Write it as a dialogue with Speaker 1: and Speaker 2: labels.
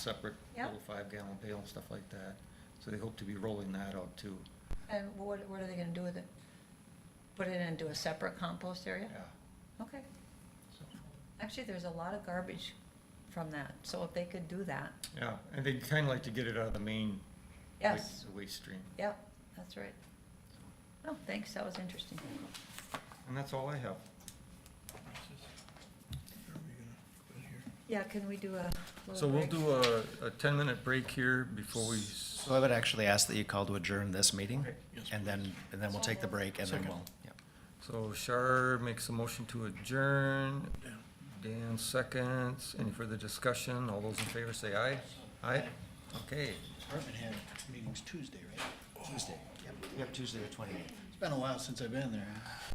Speaker 1: separate
Speaker 2: Yep.
Speaker 1: little five-gallon pail and stuff like that. So they hope to be rolling that out too.
Speaker 2: And what, what are they gonna do with it? Put it into a separate compost area? Okay.
Speaker 1: So,
Speaker 2: Actually, there's a lot of garbage from that, so if they could do that,
Speaker 1: Yeah, and they'd kind of like to get it out of the main wa-
Speaker 2: yes,
Speaker 1: waste stream.
Speaker 2: yep, that's right. Oh, thanks, that was interesting.
Speaker 1: And that's all I have.
Speaker 2: Yeah, can we do a
Speaker 1: So
Speaker 2: little
Speaker 1: we'll
Speaker 2: break?
Speaker 1: do a, a ten-minute break here before we, s-
Speaker 3: So I would actually ask that you call to adjourn this meeting,
Speaker 1: Okay.
Speaker 4: Yes,
Speaker 3: and then, and then we'll take the break, and then
Speaker 4: Second.
Speaker 3: we'll, yeah.
Speaker 1: so Shar makes a motion to adjourn.
Speaker 4: Dan.
Speaker 1: Dan seconds. Any further discussion? All those in favor say aye. Aye? Okay.
Speaker 4: Department head meeting's Tuesday, right? Tuesday. Yep.
Speaker 3: Oh. Yep, Tuesday the twenty-eighth.
Speaker 4: It's been a while since I've been there. huh?